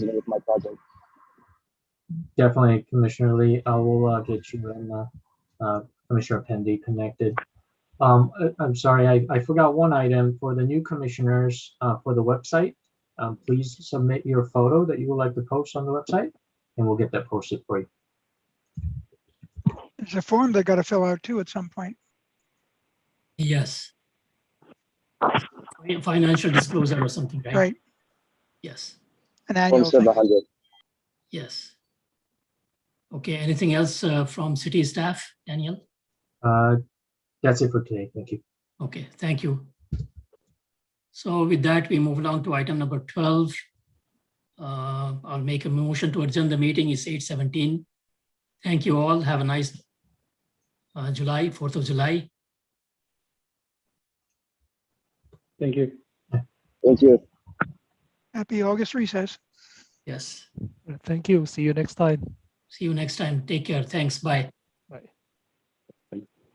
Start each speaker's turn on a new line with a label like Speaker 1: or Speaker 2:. Speaker 1: dealing with my project.
Speaker 2: Definitely, Commissioner Lee, I will uh, get you and uh, uh, Commissioner Pendy connected. Um, I- I'm sorry, I, I forgot one item for the new commissioners uh, for the website. Um, Please submit your photo that you would like to post on the website, and we'll get that posted for you.
Speaker 3: There's a form they gotta fill out too at some point.
Speaker 4: Yes. Fin- Financial disclosure or something, right?
Speaker 3: Right,
Speaker 4: Yes,
Speaker 3: an annual
Speaker 1: Form
Speaker 3: thing.
Speaker 1: seven hundred.
Speaker 4: yes. Okay, anything else uh, from city staff, Daniel?
Speaker 2: Uh, That's it for today. Thank you.
Speaker 4: Okay, thank you. So with that, we move along to item number 12. Uh, I'll make a motion to adjourn the meeting. It's 8:17. Thank you all. Have a nice uh, July, 4th of July.
Speaker 5: Thank you.
Speaker 1: Thank you.
Speaker 3: Happy August recess.
Speaker 4: Yes.
Speaker 6: Thank you. See you next time.
Speaker 4: See you next time. Take care. Thanks. Bye.